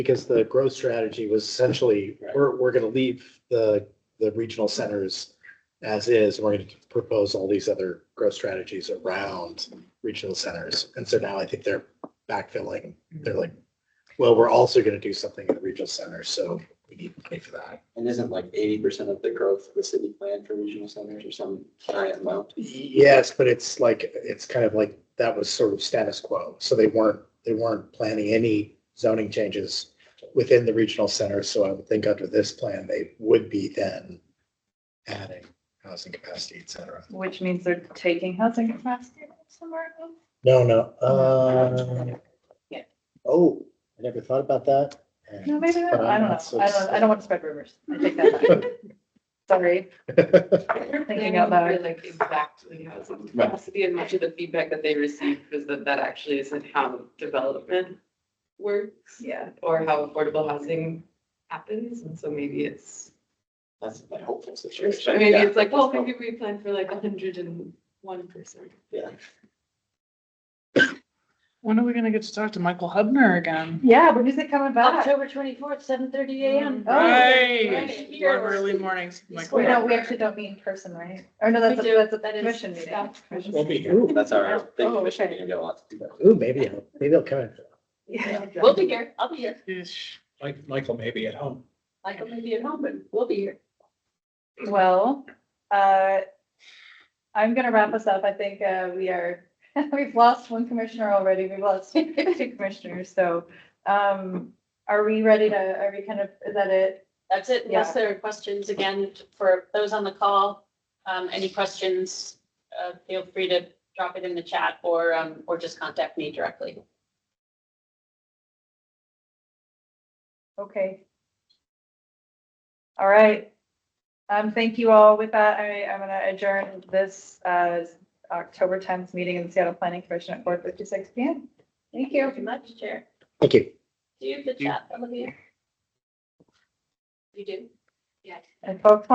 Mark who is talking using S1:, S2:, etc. S1: Because the growth strategy was essentially,
S2: Right.
S1: we're, we're gonna leave the, the regional centers as is, and we're gonna propose all these other growth strategies around regional centers. And so now I think they're backfilling, they're like, well, we're also gonna do something in the regional centers, so we need money for that.
S2: And isn't like eighty percent of the growth of the city planned for regional centers or some giant amount?
S1: Yes, but it's like, it's kind of like, that was sort of status quo, so they weren't, they weren't planning any zoning changes within the regional center, so I would think under this plan, they would be then adding housing capacity, et cetera.
S3: Which means they're taking housing capacity from somewhere else.
S1: No, no, uh.
S3: Yeah.
S1: Oh, I never thought about that. and-
S3: No, maybe not.
S1: but
S3: I
S1: I'm
S3: don't
S1: not so
S3: know. I don't, I don't want to spread rumors. I take that back. Sorry, thinking out
S4: They're
S3: loud.
S4: Like exactly housing
S2: Right.
S4: capacity and much of the feedback that they received was that that actually isn't how development works
S3: Yeah.
S4: or how affordable housing happens. And so maybe it's,
S2: That's my hopeful situation.
S4: maybe
S2: Yeah.
S4: it's like, well, maybe we plan for like hundred and one percent.
S2: Yeah.
S5: When are we gonna get to talk to Michael Hubner again?
S3: Yeah, but who's it coming back?
S6: October twenty-fourth, seven thirty AM.
S3: Oh,
S5: Right.
S6: right
S5: Love
S6: here.
S5: Early mornings, Michael.
S3: We don't, we actually don't meet in person, right? Or no, that's, a-
S4: We do.
S3: that's a
S4: That is
S3: commission meeting.
S4: staff
S1: We'll
S4: commission.
S1: be here. Ooh,
S2: That's all right. Thank
S3: Oh,
S2: you, Michigan.
S3: okay.
S2: You're gonna want to do that.
S1: Ooh, maybe, I'll- maybe I'll come in.
S3: Yeah.
S4: We'll be here. I'll be here.
S5: Ish.
S1: Like, Michael may be at home.
S4: Michael may be at home, but we'll be here.
S3: Well, uh, I'm gonna wrap us up. I think, uh, we are, we've lost one commissioner already. We've lost two commissioners, so, um, are we ready to, are we kind of, is that it?
S6: That's it, unless there are questions, again, for those on the call, um, any questions, uh, feel free to drop it in the chat or, um, or just contact me directly.
S3: Okay. All right. Um, thank you all. With that, I, I'm gonna adjourn this, uh, October tenth meeting in the Seattle Planning Commission at four fifty-six P M. Thank you.
S6: Very much, Chair.
S1: Thank you.
S6: Do you have the
S1: Do you-
S6: chat, Olivia? You do?
S3: And folks,